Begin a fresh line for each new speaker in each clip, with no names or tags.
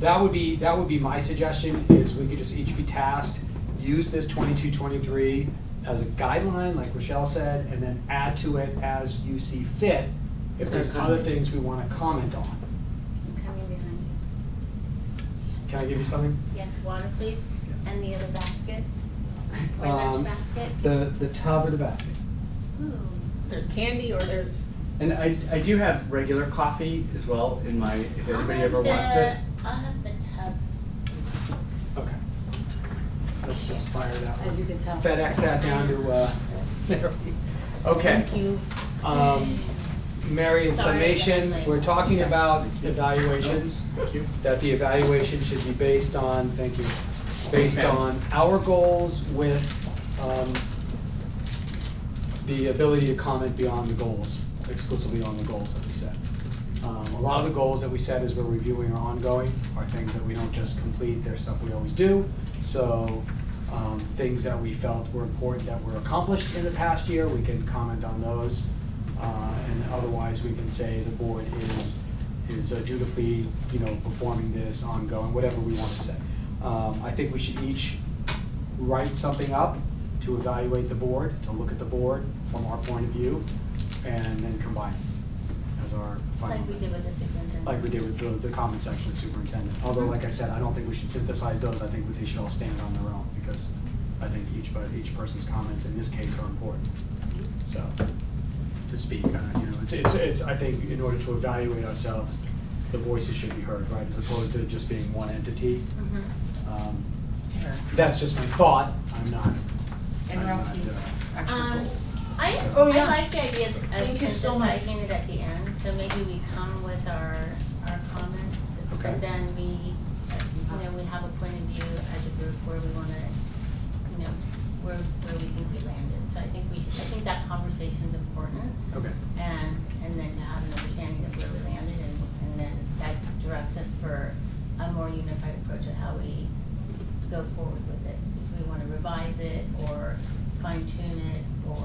that would be, that would be my suggestion, is we could just each be tasked, use this twenty-two, twenty-three as a guideline, like Rochelle said, and then add to it as you see fit, if there's
Or
other
comment.
things we wanna comment on.
I'm coming behind you.
Can I give you something?
Yes, water please,
Yes.
and the other basket, or lunch
Um,
basket.
The, the tub or the basket?
Ooh,
There's candy or there's.
And I, I do have regular coffee as well in my, if
I'll
anybody
have
ever wants
the-
it.
I'll have the tub.
Okay. Let's just fire that
As you
one.
can tell.
FedEx that down to, uh, Mary. Okay.
Thank you.
Um, Mary, in
Sorry,
summation,
Stephanie.
we're talking
Yes.
about
Thank you.
evaluations,
Thank you.
that the evaluation should be based on, thank you, based
Okay.
on our goals with, um, the ability to comment beyond the goals, exclusively on the goals that we set. Um, a lot of the goals that we set as we're reviewing are ongoing, are things that we don't just complete, they're stuff we always do. So, um, things that we felt were important that were accomplished in the past year, we can comment on those. Uh, and otherwise, we can say the board is, is uh, dutifully, you know, performing this ongoing, whatever we want to say. Um, I think we should each write something up to evaluate the board, to look at the board from our point of view, and then combine it as our final.
Like we did with the superintendent.
Like we did with the, the comment section superintendent. Although, like I said, I don't think we should synthesize those. I think they should all stand on their own because I think each, but each person's comments in this case are important. So, to speak, uh, you know, it's, it's, it's, I think in order to evaluate ourselves, the voices should be heard, right? As opposed to just being one entity.
Mhm.
Um, That's just my thought. I'm not.
And
I'm
Russ,
not,
you
uh,
actual
Um,
goals.
I,
Oh,
I
yeah.
like the idea of
Thank you so much.
synthesizing it at the end, so maybe we come with our, our comments.
Okay.
But then we, you know, we have a point of view as a group where we wanna, you know, where, where we think we landed. So I think we should, I think that conversation's important
Okay,
and, and then to have an understanding of where we landed and, and then that directs us for a more unified approach of how we go forward with it. If we wanna revise it or fine tune it or, do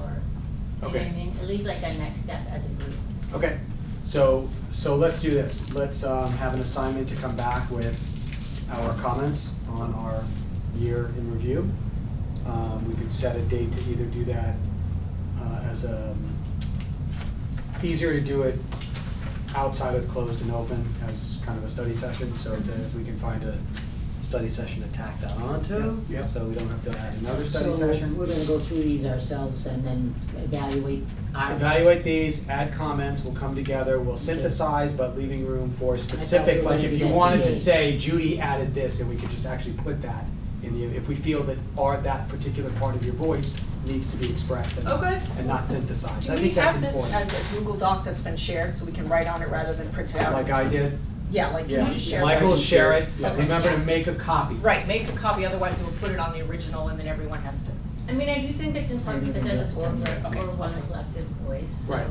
you know what
Okay.
I mean? It leaves like a next step as a group.
okay. So, so let's do this. Let's um, have an assignment to come back with our comments on our year in review. Um, We could set a date to either do that uh, as a, easier to do it outside of closed and open as kind of a study session. So to- if we can find a study session to tack that onto.
Yeah, yeah.
So we don't have to add another study
So
session.
we're gonna go through these ourselves and then evaluate our.
evaluate these, add comments, we'll come together, we'll synthesize, but leaving room for specific,
were
like
gonna
if
do
you
that
wanted to
today.
say Judy added this, and we could just actually put that in the, if we feel that our, that particular part of your voice needs to be expressed and,
Okay.
and not synthesized,
Do
I
we
think that's
have this
important.
as a Google Doc that's been shared, so we can write on it rather than print it out?
Like I did,
Yeah, like, can you just
yeah,
share?
Michael,
that?
will share it,
Yeah.
remember to
Yeah.
make a copy.
Right, make a copy, otherwise we'll put it on the original and then everyone has to.
I mean, I do think it's important because as a board,
Okay,
we're, we're
I'll
one
take it.
collective voice, so.
Right.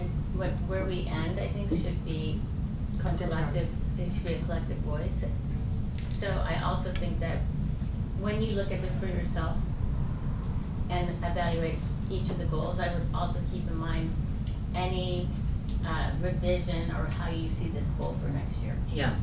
And what, where we end, I think, should be a
Content charge.
collective, it should be a collective voice. So I also think that when you look at this for yourself and evaluate each of the goals, I would also keep in mind any, uh, revision or how you see this goal for next year.
Yeah,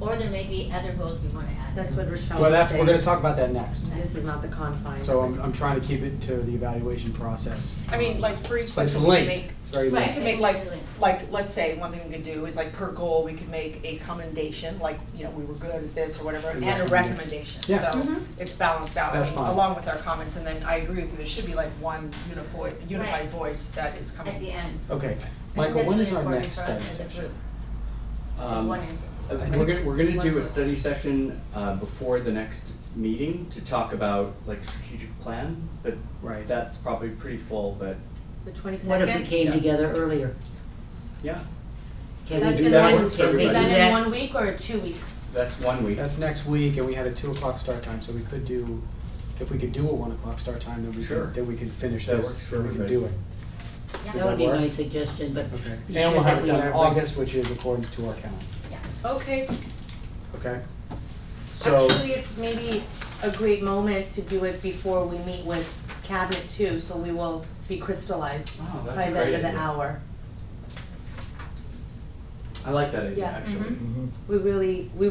Or there may be other goals we wanna add.
That's what Rochelle
Well,
was
that's, we're gonna
saying.
talk about that next,
This is not the confine.
so I'm, I'm trying to keep it to the evaluation process.
I mean, like for each
But it's
section, we can
linked,
make,
it's very
we
Right.
linked.
can make like, like, let's say, one thing we could do is like per goal, we could make a commendation, like, you know, we were good at this or whatever, and a recommendation.
Yeah.
So
Mhm.
it's balanced out, I
That's
mean,
fine.
along with our comments, and then I agree with you, there should be like one unified,
Right.
unified voice that is coming.
At the end.
Okay, Michael,
That's
when
really
is our
important
next
for us
study
as a
session?
group,
Um,
one entity.
I think We're gonna, we're gonna do a study session, uh, before the next meeting to talk about like strategic plan, but
Right.
that's probably pretty full, but
The twenty-second?
what if we came together earlier?
yeah,
Can we
That's
do
in
that?
one-
Can we do
Is that in
that?
one week or two weeks?
that's one week.
That's next week, and we had a two o'clock start time, so we could do, if we could do a one o'clock start time, then we
Sure.
could, then we could finish
That
this,
works for
then we could do
everybody.
it.
That would
Does
be
that
my
work?
suggestion, but
Okay.
be
And
sure
we'll have
that
it
we
done
are.
in August, which is according to our calendar,
Yeah.
Okay,
okay? So,
actually, it's maybe a great moment to do it before we meet with cabinet too, so we will be crystallized
Wow, that's
by
a
the
great
end of the
idea.
hour.
I like that idea,
Yeah.
actually.
Mhm.
We really, we